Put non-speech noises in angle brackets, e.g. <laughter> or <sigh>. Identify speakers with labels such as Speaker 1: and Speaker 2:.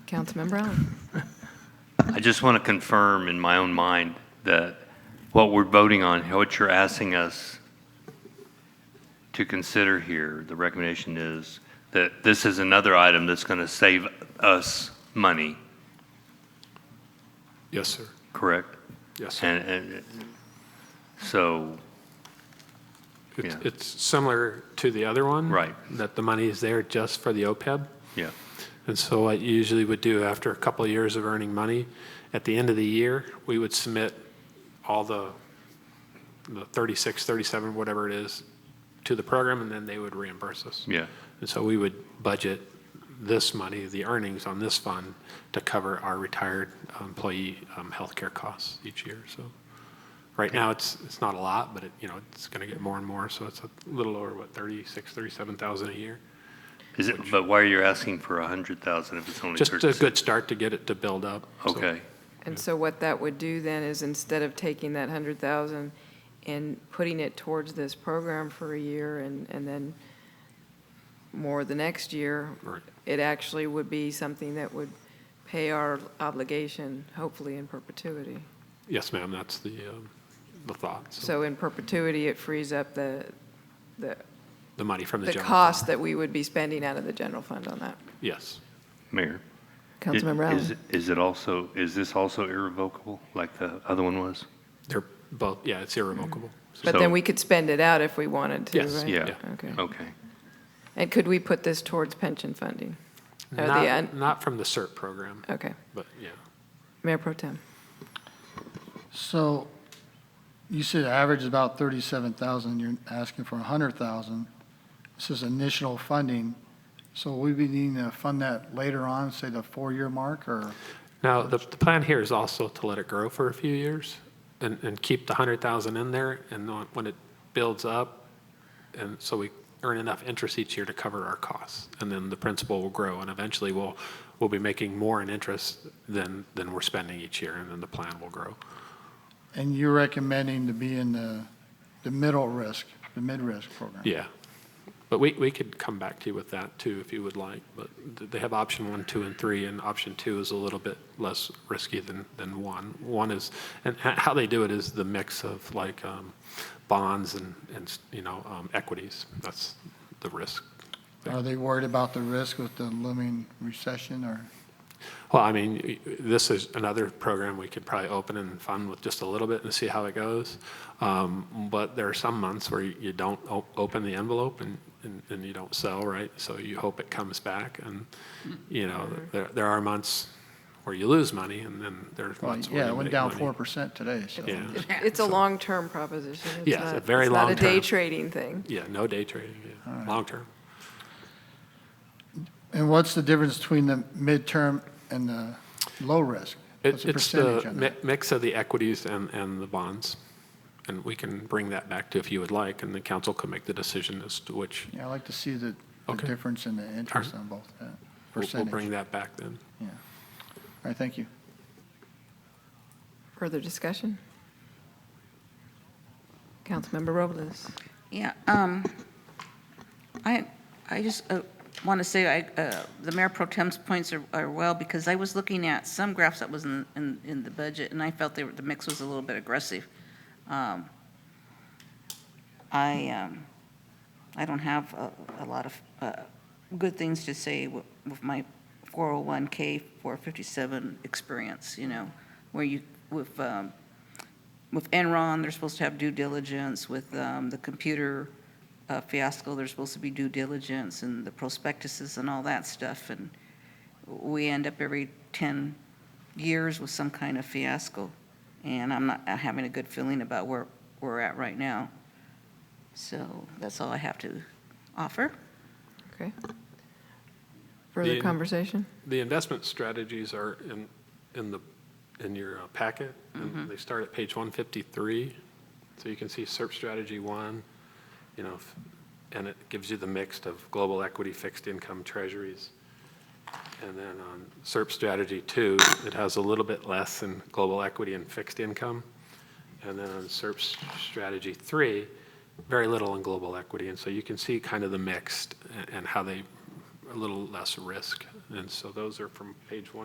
Speaker 1: Councilmember
Speaker 2: <laughs>
Speaker 1: Allen.
Speaker 2: I just want to confirm in my own mind that what we're voting on, what you're asking us to consider here, the recommendation is that this is another item that's going to save us money,
Speaker 3: Yes, sir.
Speaker 2: correct?
Speaker 3: Yes, sir.
Speaker 2: And, and, so,
Speaker 3: It's,
Speaker 2: yeah.
Speaker 3: it's similar to the other one.
Speaker 2: Right.
Speaker 3: That the money is there just for the OPEB.
Speaker 2: yeah,
Speaker 3: And so what you usually would do after a couple of years of earning money, at the end of the year, we would submit all the, the 36, 37, whatever it is, to the program, and then they would reimburse us.
Speaker 2: yeah,
Speaker 3: And so we would budget this money, the earnings on this fund, to cover our retired employee um, healthcare costs each year, so. Right now, it's, it's not a lot, but it, you know, it's going to get more and more, so it's a little over, what, 36, 37,000 a year?
Speaker 2: is it, but why are you asking for a hundred thousand if it's only
Speaker 3: Just a
Speaker 2: thirty-six?
Speaker 3: good start to get it to build up. so-
Speaker 2: Okay,
Speaker 1: And so what that would do then is instead of taking that 100,000 and putting it towards this program for a year and, and then more the next year,
Speaker 3: Right.
Speaker 1: it actually would be something that would pay our obligation, hopefully in perpetuity.
Speaker 3: Yes, ma'am, that's the, um, the thought, so,
Speaker 1: So in perpetuity, it frees up the, the,
Speaker 3: the money from the
Speaker 1: the
Speaker 3: general.
Speaker 1: cost that we would be spending out of the general fund on that.
Speaker 3: fund. Yes,
Speaker 2: Mayor. i-
Speaker 1: Councilmember Allen.
Speaker 2: is- Is it also, is this also irrevocable, like the other one was?
Speaker 3: they're both, yeah, it's irrevocable. So-
Speaker 1: But
Speaker 2: So-
Speaker 1: then we could spend it out if we wanted to, right?
Speaker 3: Yes,
Speaker 2: Yeah,
Speaker 1: Okay.
Speaker 2: okay.
Speaker 1: And could we put this towards pension funding? Or the
Speaker 3: Not,
Speaker 1: un-
Speaker 3: not from the CERT program,
Speaker 1: Okay.
Speaker 3: but, yeah.
Speaker 1: Mayor Pro Tem.
Speaker 4: So you said average is about 37,000, you're asking for 100,000. This is initial funding, so we be needing to fund that later on, say the four-year mark, or?
Speaker 3: Now, the, the plan here is also to let it grow for a few years and, and keep the hundred thousand in there and then when it builds up, and so we earn enough interest each year to cover our costs. And then the principal will grow and eventually we'll, we'll be making more in interest than, than we're spending each year and then the plan will grow.
Speaker 4: And you're recommending to be in the, the middle risk, the mid-risk program?
Speaker 3: Yeah. But we, we could come back to you with that too if you would like, but th- they have option one, two, and three, and option two is a little bit less risky than, than one. One is, and h- how they do it is the mix of like um, bonds and, and, s- you know, um, equities. That's the risk.
Speaker 4: Are they worried about the risk with the looming recession, or?
Speaker 3: Well, I mean, y- y- this is another program we could probably open and fund with just a little bit and see how it goes. Um, But there are some months where you you don't o- open the envelope and, and- and you don't sell, right? So you hope it comes back and, you know,
Speaker 4: Mm-hmm.
Speaker 3: there, there are months where you lose money and then there's months where
Speaker 4: Yeah,
Speaker 3: you
Speaker 4: it went
Speaker 3: make
Speaker 4: down
Speaker 3: money.
Speaker 4: 4% today, so.
Speaker 3: Yeah,
Speaker 1: It's a long-term proposition. It's
Speaker 3: Yeah, it's a
Speaker 1: not-
Speaker 3: very
Speaker 1: It's not a day
Speaker 3: long-term.
Speaker 1: trading thing.
Speaker 3: yeah, no day trading, yeah, long term.
Speaker 4: And what's the difference between the midterm and the low risk?
Speaker 3: It-
Speaker 4: What's the
Speaker 3: It's
Speaker 4: percentage
Speaker 3: the
Speaker 4: on
Speaker 3: mi-
Speaker 4: that?
Speaker 3: mix of the equities and, and the bonds. And we can bring that back to if you would like, and the council can make the decision as to which
Speaker 4: Yeah, I'd like to see the, the
Speaker 3: Okay.
Speaker 4: difference in the interest on both, uh,
Speaker 3: We'll- We'll
Speaker 4: percentage.
Speaker 3: bring
Speaker 4: All
Speaker 3: that back then.
Speaker 4: right, thank you.
Speaker 1: Further discussion? Councilmember Robles.
Speaker 5: Yeah, um, I, I just want to say, I, uh, the Mayor Pro Tem's points are, are well, because I was looking at some graphs that was in, in, in the budget, and I felt they were, the mix was a little bit aggressive. Um, I, um, I don't have a, a lot of, uh, good things to say wi- with my 401K, 457 experience, you know, where you, with, um, with Enron, they're supposed to have due diligence. With um, the computer uh, fiasco, there's supposed to be due diligence and the prospectuses and all that stuff. And we end up every 10 years with some kind of fiasco. And I'm not having a good feeling about where we're at right now. So that's all I have to offer.
Speaker 1: Okay. Further
Speaker 3: The-
Speaker 1: conversation?
Speaker 3: The investment strategies are in, in the, in your uh, packet, and they start at page 153. So you can see SERP strategy one, you know, f- and it gives you the mix of global equity, fixed income, treasuries. And then on SERP strategy two, it has a little bit less in global equity and fixed income. And then on SERP s- strategy three, very little in global equity. And so you can see kind of the mixed a- and how they a little less risk. And so those are from page one.